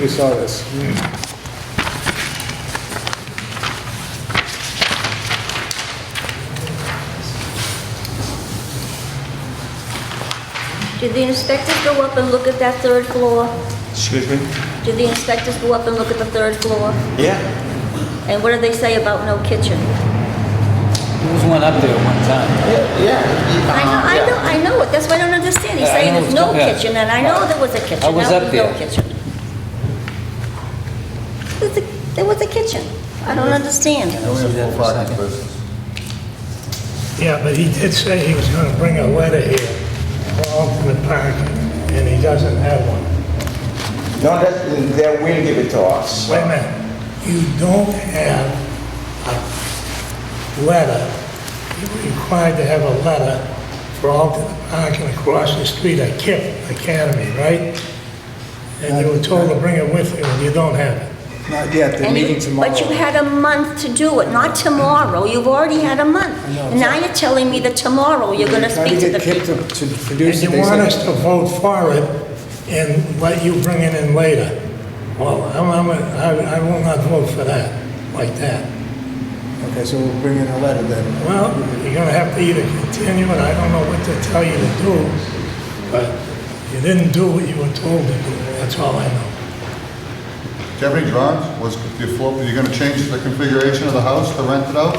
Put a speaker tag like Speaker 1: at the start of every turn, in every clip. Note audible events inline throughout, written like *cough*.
Speaker 1: We saw this.
Speaker 2: Did the inspectors go up and look at that third floor?
Speaker 3: Excuse me?
Speaker 2: Did the inspectors go up and look at the third floor?
Speaker 3: Yeah.
Speaker 2: And what did they say about no kitchen?
Speaker 4: There was one up there at one time.
Speaker 3: Yeah, yeah.
Speaker 2: I know, I know, I know it, that's why I don't understand. He's
Speaker 4: Uh-huh. Yeah, I
Speaker 2: saying
Speaker 4: know
Speaker 2: there's
Speaker 4: it's
Speaker 2: no
Speaker 4: not- yeah.
Speaker 2: kitchen, and I know there was a kitchen.
Speaker 4: I was
Speaker 2: now
Speaker 4: up
Speaker 2: there's no
Speaker 4: there.
Speaker 2: kitchen. There's a- There was a kitchen. I don't understand.
Speaker 5: Yeah, but he did say he was gonna bring a letter here for ultimate parking, and he doesn't have one.
Speaker 3: No, that, they will give it to us.
Speaker 5: Wait a minute, you don't have a letter, you're required to have a letter for ultimate parking across the street at KIP Academy, right? And you were told to bring it with you, and you don't have it.
Speaker 1: Not yet, they're
Speaker 2: And you-
Speaker 1: meeting tomorrow.
Speaker 2: But you had a month to do it, not tomorrow. You've already had a month. And now you're telling me that tomorrow you're gonna
Speaker 1: Trying
Speaker 2: speak to the
Speaker 1: get Kip
Speaker 2: people.
Speaker 1: to- to produce it.
Speaker 5: And you
Speaker 1: They
Speaker 5: want
Speaker 1: said-
Speaker 5: us to vote for it and let you bring it in later. Well, I'm, I'm, I I will not vote for that, like that.
Speaker 1: Okay, so we'll bring in a letter then.
Speaker 5: Well, you're gonna have to either continue, and I don't know what to tell you to do, but you didn't do what you were told to do, that's all I know.
Speaker 6: Deputy John, was your floor, are you gonna change the configuration of the house to rent it out?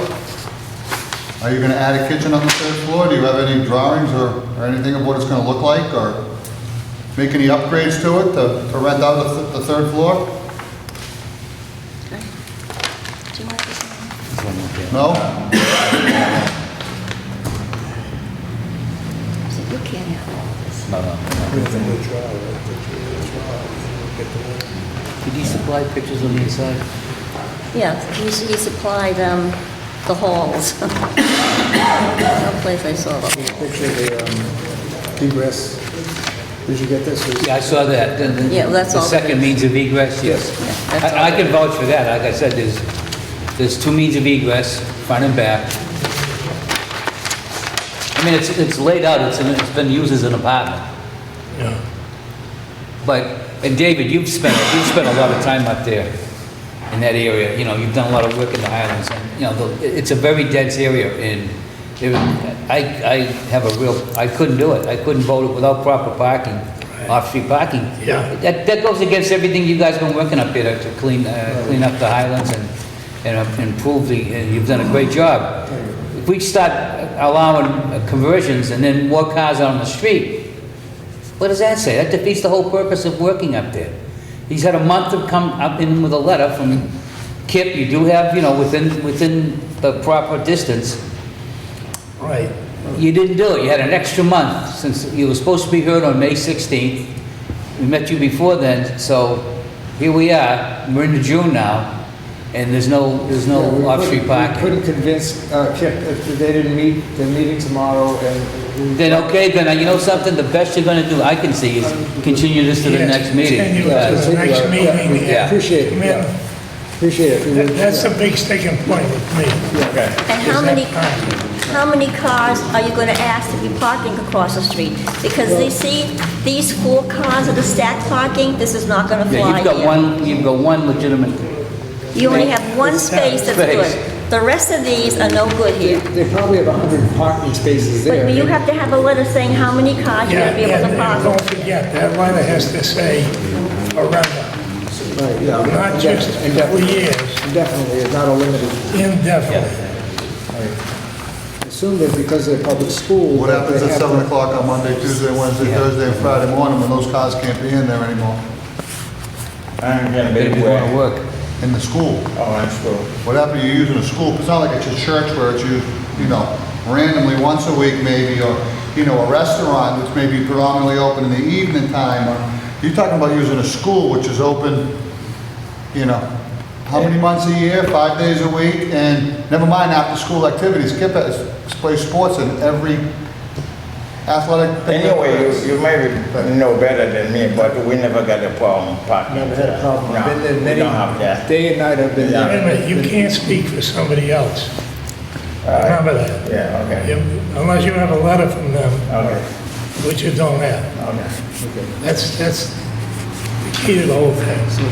Speaker 6: Are you gonna add a kitchen on the third floor? Do you have any drawings or, or anything of what it's gonna look like, or make any upgrades to it to, to rent out the, th- the third floor?
Speaker 2: Do you want this one?
Speaker 6: No?
Speaker 2: So You can't have all this.
Speaker 4: Did you supply pictures of the inside?
Speaker 2: Yeah, he he supplied um, the halls. *laughs* Someplace I saw them.
Speaker 1: Picture the, um, egress. Did you get this?
Speaker 4: Yeah, I saw that. The- the-
Speaker 2: Yeah, that's all
Speaker 4: The
Speaker 2: that
Speaker 4: second
Speaker 2: is.
Speaker 4: means of egress, yes.
Speaker 2: Yeah, that's
Speaker 4: I I can vouch for that. Like I said, there's, there's two means of egress, front and back. I mean, it's, it's laid out, it's, in- it's been used as an apartment.
Speaker 5: Yeah.
Speaker 4: But, and David, you've spent, you've spent a lot of time up there in that area, you know, you've done a lot of work in the Highlands, and, you know, the- it- it's a very dense area, and there- I, I have a real, I couldn't do it, I couldn't vote it without proper parking, off-street parking.
Speaker 5: Yeah.
Speaker 4: That, that goes against everything you guys been working up here to clean, uh, clean up the Highlands and, and improve the, and you've done a great job. If we start allowing uh, conversions and then more cars on the street, what does that say? That defeats the whole purpose of working up there. He's had a month to come up in with a letter from Kip, you do have, you know, within, within the proper distance.
Speaker 5: Right,
Speaker 4: You didn't do it, you had an extra month since you were supposed to be heard on May 16th. We met you before then, so here we are, we're into June now, and there's no, there's no
Speaker 1: Yeah, we
Speaker 4: off-street
Speaker 1: couldn't- We
Speaker 4: parking.
Speaker 1: couldn't convince uh, Kip, if they didn't meet, they're meeting tomorrow and. we-
Speaker 4: Then, okay, then, uh, you know something, the best you're gonna do, I can see, is continue this to the
Speaker 5: Yes,
Speaker 4: next meeting.
Speaker 5: continue it
Speaker 1: Yeah,
Speaker 5: to
Speaker 4: because-
Speaker 5: the next
Speaker 1: yeah, yeah,
Speaker 5: meeting,
Speaker 4: yeah.
Speaker 1: Appreciate it,
Speaker 5: Come in.
Speaker 1: yeah. Appreciate it. if you
Speaker 5: That-
Speaker 1: would,
Speaker 5: that's
Speaker 1: yeah.
Speaker 5: a big sticking point with me.
Speaker 2: And how
Speaker 5: Is that
Speaker 2: many,
Speaker 5: parking?
Speaker 2: how many cars are you gonna ask to be parking across the street? Because they see these four cars that are stacked parking, this is not gonna
Speaker 4: Yeah,
Speaker 2: fly
Speaker 4: you've got
Speaker 2: here.
Speaker 4: one, you've got one legitimate,
Speaker 2: You only have one space that's
Speaker 4: Space.
Speaker 2: good. The rest of these are no good here.
Speaker 1: They probably have 100 parking spaces there.
Speaker 2: But you have to have a letter saying how many cars you're
Speaker 5: Yeah,
Speaker 2: gonna be able to
Speaker 5: and
Speaker 2: park.
Speaker 5: don't forget, that letter has to say forever,
Speaker 1: Right, yeah.
Speaker 5: not just
Speaker 1: And
Speaker 5: three
Speaker 1: definitely-
Speaker 5: years,
Speaker 1: and Definitely, it's not a limited.
Speaker 5: indefinitely.
Speaker 1: Assume that because they're public school.
Speaker 6: What
Speaker 1: that
Speaker 6: happens
Speaker 1: they
Speaker 6: at
Speaker 1: have
Speaker 6: seven
Speaker 1: to-
Speaker 6: o'clock on Monday, Tuesday, Wednesday, Thursday, and Friday morning when those cars can't be in there anymore?
Speaker 7: I'm gonna
Speaker 4: that
Speaker 7: be
Speaker 4: is gonna
Speaker 7: away.
Speaker 4: work.
Speaker 6: In the school?
Speaker 7: Oh, I'm sure.
Speaker 6: What happened, you're using a school, it's not like it's a church where it's used, you know, randomly once a week maybe, or, you know, a restaurant which may be predominantly open in the evening time. or- You're talking about using a school which is open, you know, how many months a year, five days a week, and never mind after-school activities. Skip has, plays sports in every athletic. thing that
Speaker 7: Anyway,
Speaker 6: there is.
Speaker 7: you, you may know better than me, but we never got a problem parking.
Speaker 1: Never had a problem.
Speaker 7: No,
Speaker 1: Been there
Speaker 7: we
Speaker 1: many-
Speaker 7: don't have that.
Speaker 1: Day and night I've been
Speaker 5: Wait a
Speaker 1: there.
Speaker 5: minute, you can't speak for somebody else. Remember that.
Speaker 7: Yeah, okay,
Speaker 5: You- Unless you have a letter from them,
Speaker 7: okay,
Speaker 5: which you don't have.
Speaker 7: okay.
Speaker 5: That's, that's the He did the whole thing.